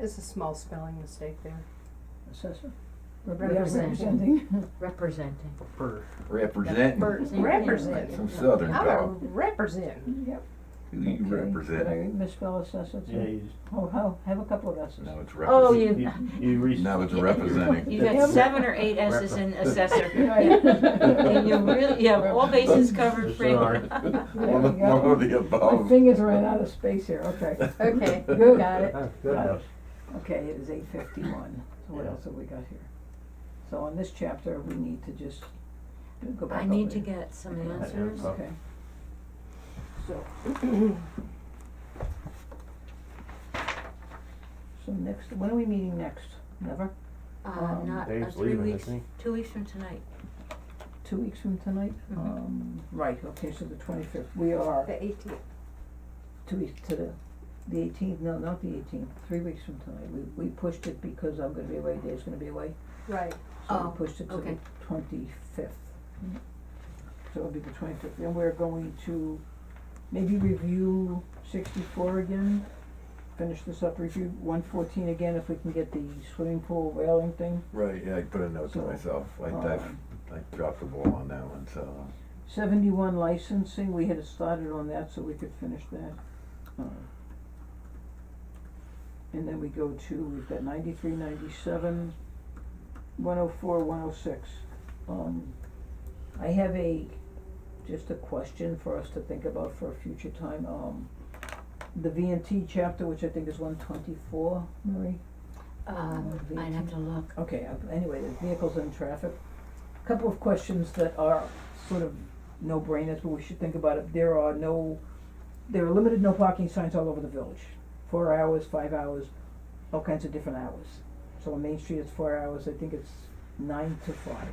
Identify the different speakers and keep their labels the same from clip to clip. Speaker 1: It's a small spelling mistake there.
Speaker 2: Assessor?
Speaker 3: Represent.
Speaker 2: Representing.
Speaker 3: representing.
Speaker 4: For
Speaker 5: Representing.
Speaker 3: Same thing.
Speaker 1: Represent.
Speaker 5: That's some southern
Speaker 1: I'm a
Speaker 5: talk.
Speaker 1: represent.
Speaker 2: Yep.
Speaker 5: Who you
Speaker 2: okay. Did I
Speaker 5: represent?
Speaker 2: misspell assessor too?
Speaker 4: yeah, you,
Speaker 2: Oh, how, have a couple of S's.
Speaker 5: No, it's
Speaker 3: Oh,
Speaker 5: represent.
Speaker 3: you,
Speaker 4: you, you reached.
Speaker 5: No, it's
Speaker 3: Yeah.
Speaker 5: representing.
Speaker 3: you got seven or eight S's in assessor. Yeah. And you really, you have all bases covered, Frank.
Speaker 5: One of- one of the
Speaker 2: My
Speaker 5: above.
Speaker 2: fingers ran out of space here, okay,
Speaker 1: Okay,
Speaker 2: Good.
Speaker 1: got it.
Speaker 4: Oh, goodness.
Speaker 2: okay, it is eight fifty-one, so what
Speaker 4: Yeah.
Speaker 2: else have we got here? So on this chapter, we need to just go back
Speaker 3: I
Speaker 2: over
Speaker 3: need to
Speaker 2: it.
Speaker 3: get some
Speaker 4: Yeah,
Speaker 3: answers.
Speaker 4: yeah.
Speaker 2: Okay. So. So next, when are we meeting next? Never?
Speaker 3: Uh,
Speaker 2: Um,
Speaker 3: not, uh,
Speaker 4: Dave's
Speaker 3: three
Speaker 4: leaving, I
Speaker 3: weeks,
Speaker 4: think.
Speaker 3: two weeks from tonight.
Speaker 2: Two weeks from tonight?
Speaker 3: Mhm.
Speaker 2: Um, right, okay, so the twenty-fifth, we are
Speaker 1: The eighteenth.
Speaker 2: two weeks to the, the eighteenth, no, not the eighteenth, three weeks from tonight. We, we pushed it because I'm gonna be away, Dave's gonna be away,
Speaker 1: Right.
Speaker 2: so
Speaker 3: Oh,
Speaker 2: we pushed it to the
Speaker 3: okay.
Speaker 2: twenty-fifth. So it'll be the twenty-fifth, and we're going to maybe review sixty-four again, finish this up, review one fourteen again if we can get the swimming pool railing thing.
Speaker 5: Right, yeah, I put a note to
Speaker 2: So,
Speaker 5: myself. I,
Speaker 2: um,
Speaker 5: I, I dropped the ball on that one, so.
Speaker 2: Seventy-one licensing, we had started on that so we could finish that. Uh, And then we go to, we've got ninety-three, ninety-seven, one oh four, one oh six. Um, I have a, just a question for us to think about for a future time, um, the V and T chapter, which I think is one twenty-four, Marie? Oh,
Speaker 3: Um, I'd have to look.
Speaker 2: Okay, uh, anyway, the vehicles and traffic. Couple of questions that are sort of no-brainers, but we should think about it. There are no, there are limited no parking signs all over the village. Four hours, five hours, all kinds of different hours. So on Main Street, it's four hours, I think it's nine to five.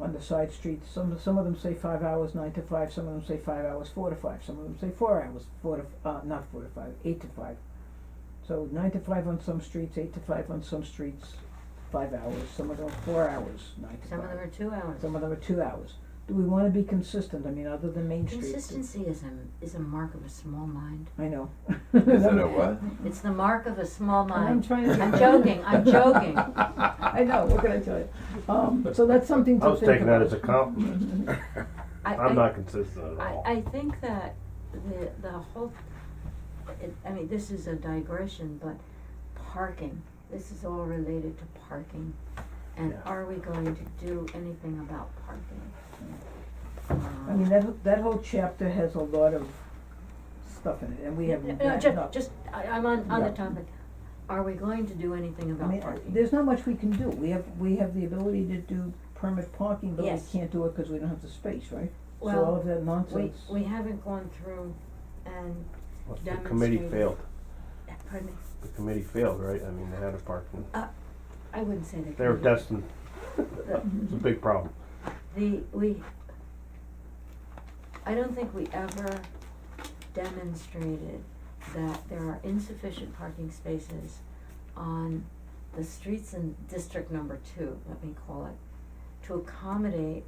Speaker 2: On the side streets, some, some of them say five hours, nine to five, some of them say five hours, four to five, some of them say four hours, four to, f- uh, not four to five, eight to five. So nine to five on some streets, eight to five on some streets, five hours, some of them are four hours, nine to five.
Speaker 3: Some of them are two hours.
Speaker 2: Some of them are two hours. Do we wanna be consistent? I mean, other than Main Street.
Speaker 3: Consistency is a, is a mark of a small mind.
Speaker 2: I know.
Speaker 5: Is it a what?
Speaker 3: It's the mark of a small
Speaker 2: I'm
Speaker 3: mind.
Speaker 2: trying to.
Speaker 3: I'm joking, I'm joking.
Speaker 2: I know, what can I tell you? Um, so that's something to
Speaker 4: I was
Speaker 2: think
Speaker 4: taking that
Speaker 2: about.
Speaker 4: as a compliment.
Speaker 3: I- I-
Speaker 4: I'm not consistent at
Speaker 3: I,
Speaker 4: all.
Speaker 3: I think that the, the whole, it, I mean, this is a digression, but parking, this is all related to parking. And
Speaker 4: Yeah.
Speaker 3: are we going to do anything about parking?
Speaker 2: I mean, that, that whole chapter has a lot of stuff in it, and we have
Speaker 3: No,
Speaker 2: not
Speaker 3: No, just, just, I, I'm on, on the
Speaker 2: Yeah.
Speaker 3: topic, are we going to do anything
Speaker 2: I
Speaker 3: about
Speaker 2: mean,
Speaker 3: parking?
Speaker 2: there's not much we can do. We have, we have the ability to do permit parking, but we
Speaker 3: Yes.
Speaker 2: can't do it because we don't have the space, right? So all
Speaker 3: Well,
Speaker 2: of that
Speaker 3: we,
Speaker 2: nonsense.
Speaker 3: we haven't gone through and,
Speaker 4: Well, The committee
Speaker 3: demonstrated-
Speaker 4: failed.
Speaker 3: pardon me,
Speaker 4: The committee failed, right? I mean, they had a parking.
Speaker 3: I wouldn't say that.
Speaker 4: They were destined. It's a big problem.
Speaker 3: The, we, I don't think we ever demonstrated that there are insufficient parking spaces on the streets in District Number Two, let me call it, to accommodate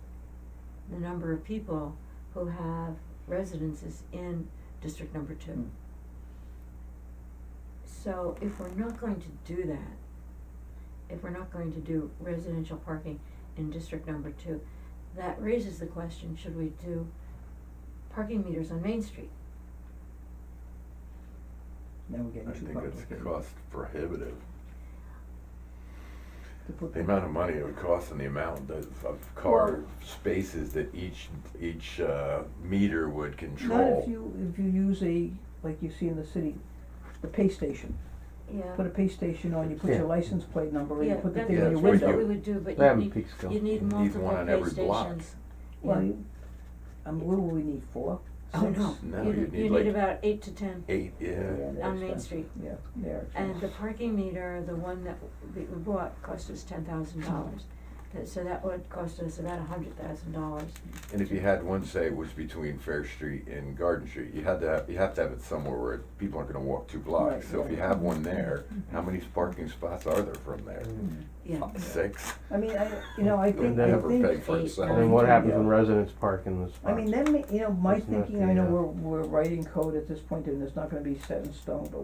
Speaker 3: the number of people who have residences in District Number
Speaker 2: Mm.
Speaker 3: Two. So if we're not going to do that, if we're not going to do residential parking in district number two, that raises the question, should we do parking meters on Main Street?
Speaker 2: Now we're getting
Speaker 5: I
Speaker 2: too
Speaker 5: think it's
Speaker 2: complicated.
Speaker 5: cost prohibitive.
Speaker 2: To put
Speaker 5: The amount of money it would cost and the amount of, of car spaces that each, each, uh, meter would
Speaker 2: Not if
Speaker 5: control.
Speaker 2: you, if you use a, like you see in the city, the pay station.
Speaker 3: Yeah.
Speaker 2: Put a pay station on, you put
Speaker 4: Yeah.
Speaker 2: your license plate number, and you
Speaker 3: Yeah,
Speaker 2: put the
Speaker 3: that-
Speaker 2: thing in your
Speaker 5: that's what
Speaker 2: window.
Speaker 3: that's what
Speaker 5: window.
Speaker 3: we would do, but
Speaker 4: They
Speaker 3: you
Speaker 4: have a
Speaker 3: need,
Speaker 4: peak scale.
Speaker 3: you need
Speaker 5: You need
Speaker 3: multiple
Speaker 5: one on
Speaker 3: pay
Speaker 5: every block.
Speaker 3: stations.
Speaker 2: Well, you, um, what will we need, four?
Speaker 3: Oh,
Speaker 2: Six?
Speaker 3: no.
Speaker 5: No,
Speaker 3: You
Speaker 5: you
Speaker 3: need,
Speaker 5: need
Speaker 3: you
Speaker 5: like-
Speaker 3: need about eight to ten
Speaker 5: Eight, yeah.
Speaker 2: they're
Speaker 3: on Main
Speaker 2: expensive.
Speaker 3: Street.
Speaker 2: Yeah, they're
Speaker 3: And the
Speaker 2: expensive.
Speaker 3: parking meter, the one that we we bought, cost us ten thousand dollars. So that would cost us about a hundred thousand dollars.
Speaker 5: And if you had one, say, was between Fair Street and Garden Street, you had to have, you have to have it somewhere where people aren't gonna walk two blocks.
Speaker 2: Right,
Speaker 5: So if you
Speaker 2: right. Mm-hmm.
Speaker 5: have one there, how many parking spots are there from there?
Speaker 3: Yeah.
Speaker 5: Six?
Speaker 2: Hmm. I mean, I, you know, I think,
Speaker 5: Would
Speaker 2: I
Speaker 5: never
Speaker 2: think,
Speaker 5: pay for
Speaker 3: eight,
Speaker 5: itself.
Speaker 4: And then what happens
Speaker 2: Yeah.
Speaker 4: when residents park in the
Speaker 2: I
Speaker 4: spots?
Speaker 2: mean, then, ma- you know, my
Speaker 4: It's not
Speaker 2: thinking, I
Speaker 4: the,
Speaker 2: know
Speaker 4: uh,
Speaker 2: we're, we're writing code at this point, and it's not gonna be set in stone, but